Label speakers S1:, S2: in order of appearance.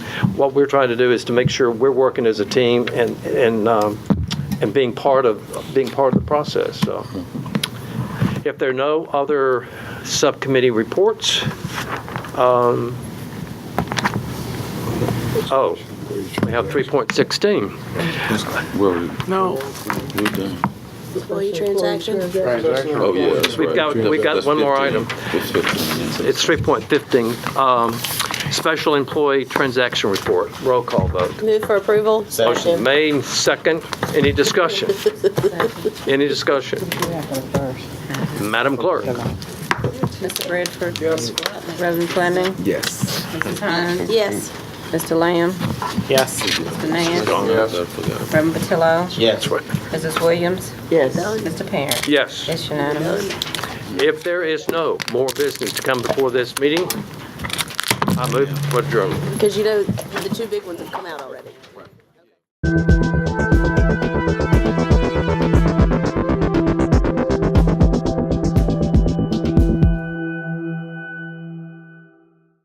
S1: what we're trying to do is to make sure we're working as a team and, and, um, and being part of, being part of the process, so. If there are no other subcommittee reports, um, oh, we have 3.16.
S2: Well,
S3: No.
S2: we're done.
S4: Employee transaction?
S2: Oh, yeah, that's
S1: We've
S2: right.
S1: got-
S2: Yeah,
S1: we've got
S2: that's
S1: one more
S2: 15.
S1: item.
S2: It's 15, yeah.
S1: It's 3.15, um, special employee transaction report, roll call vote.
S4: Move for approval?
S1: Motion made, second. Any discussion? Any discussion? Madam Clerk?
S5: Mr. Bradford?
S6: Yes.
S5: Reverend Fleming?
S7: Yes.
S5: Mrs. Hines?
S4: Yes.
S5: Mr. Lamb?
S6: Yes.
S5: Mr. Nance?
S6: Yes.
S2: I forgot.
S5: Reverend Patillo?
S6: Yes.
S5: Mrs. Williams?
S4: Yes.
S5: Mr. Parent?
S1: Yes.
S5: It's unanimous.
S1: If there is no more business to come before this meeting, I move for adjournment.
S4: Because you know, the two big ones have come out already.